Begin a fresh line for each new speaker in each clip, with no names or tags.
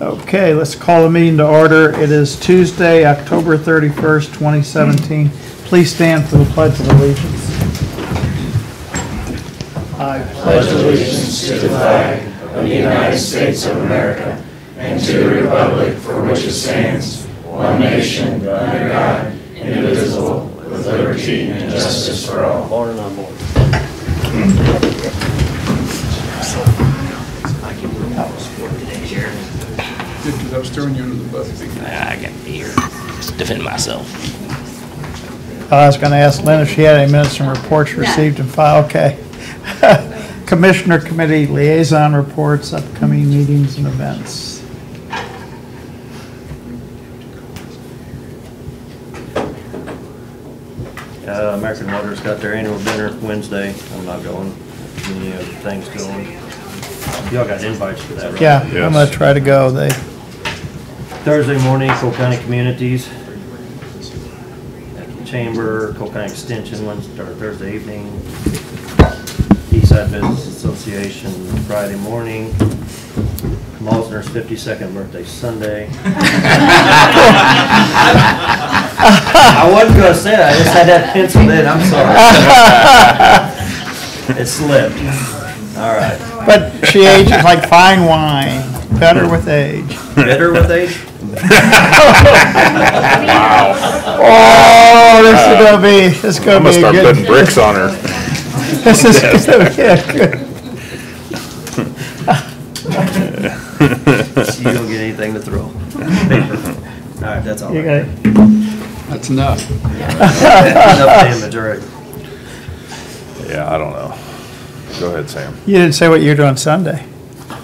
Okay, let's call the meeting to order. It is Tuesday, October 31st, 2017. Please stand for the Pledge of Allegiance.
Because I was throwing you under the bus. big time.
I got to be here to defend myself.
Uh, I was going to ask Lynn if she had any minutes and reports received and filed. Okay. Commissioner Committee Liaison Reports, upcoming meetings and events.
Uh, American Water's got their annual dinner Wednesday. I'm not going. Any other things going? Y'all got invites for that, right?
Yeah, I'm going to try to go. They,
Thursday morning, Cole County Communities. At the Chamber, Cole County Extension, Wednesday, or Thursday evening. Eastside Business Association, Friday morning. Mosner's fifty-second birthday Sunday. I wasn't gonna say that, I just had that pencil in, I'm sorry. It slipped. All right.
but she ages like fine wine, better with age.
Better with age?
Oh, this is gonna be, this is
I'm
gonna
gonna
be a
start putting
good.
bricks on her.
This is gonna be a good.
You don't get anything to throw. All right, that's all.
You
right.
got it.
That's enough.
Enough damage, all right.
Yeah, I don't know. Go ahead, Sam.
You didn't say what you're doing Sunday.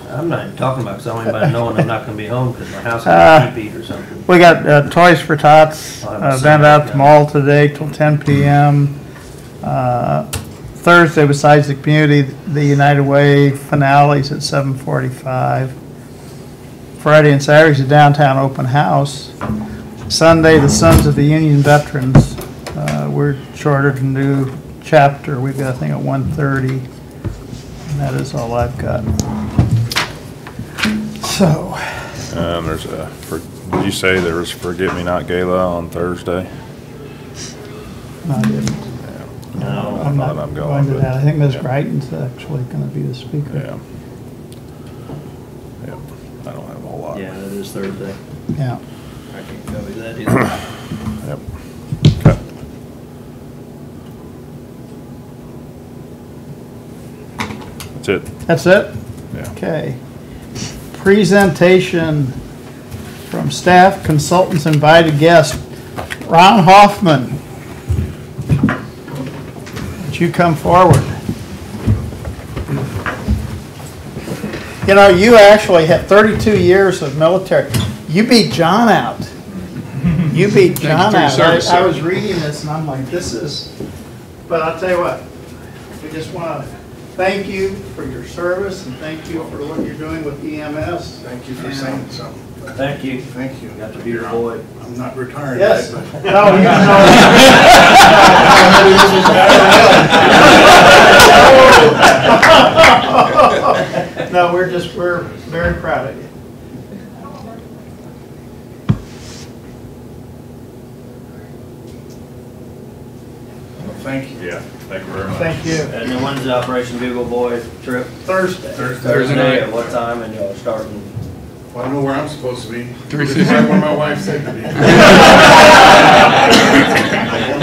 I'm not even talking about, because I don't even know I'm not gonna be home, because my house is
Uh,
gonna be beat or something.
We got uh, Toys for Tots
Oh,
uh,
I'm
event out at
sorry.
the mall today till 10 p.m. Uh, Thursday, besides the community, the United Way finales at 7:45. Friday and Saturday's a downtown open house. Sunday, the Sons of the Union Veterans. Uh, we're chartered a new chapter. We've got a thing at 1:30. And that is all I've got. So.
Um, there's a, for- did you say there was Forget-Me-Not Gala on Thursday?
no, I didn't.
No.
I'm
thought
not
I'm
going
going,
to
but-
that. I think Ms.
yeah.
Brighton's actually going to be the speaker.
Yeah. Yep, I don't have a whole lot.
Yeah, that is Thursday.
Yeah.
I can't tell you that either.
Yep. Okay. That's it,
That's it?
yeah.
Okay. Presentation from staff, consultants, invited guests. Ron Hoffman. Would you come forward? You know, you actually had 32 years of military. You beat John out. You beat
for
John
your
out. I-
service,
I
sir.
was reading this and I'm like, this is, but I'll tell you what, we just want to thank you for your service and thank you for what you're doing with EMS.
Thank you for
And-
saying so.
Thank you.
Thank you.
Got to be your boy.
I'm not retired yet,
Yes. No,
but
you know. No, we're just, we're very proud of you.
thank you.
Yeah, thank you very much.
Thank you.
And then when's the Operation Bugle Boy trip?
Thursday.
Thursday night.
At what time, and y'all starting?
Well, I know where I'm supposed to be.
Three fifty.
Where my wife said to be.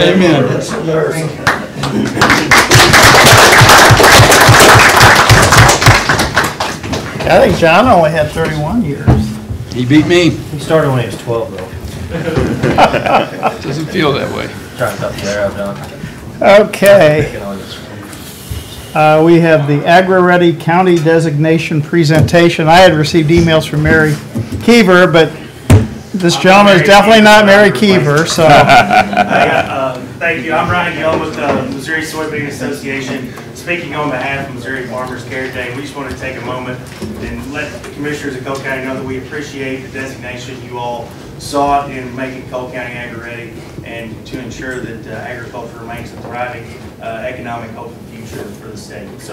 Amen.
I think John only had 31 years.
He beat me.
He started when he was twelve, though.
Doesn't feel that way.
Trying to talk to there, I've done.
Okay.
Picking on this.
Uh, We have the Agri-Ready County Designation Presentation. I had received emails from Mary Kiever, but this gentleman is definitely not Mary Kiever, so.
Uh, Thank you. I'm Ryan Gill with the Missouri Soybean Association. Speaking on behalf of Missouri Farmers Care Day, we just want to take a moment and let the commissioners of Cole County know that we appreciate the designation you all sought in making Cole County agri-ready and to ensure that uh, agriculture remains a thriving uh, economic hope and future for the state. So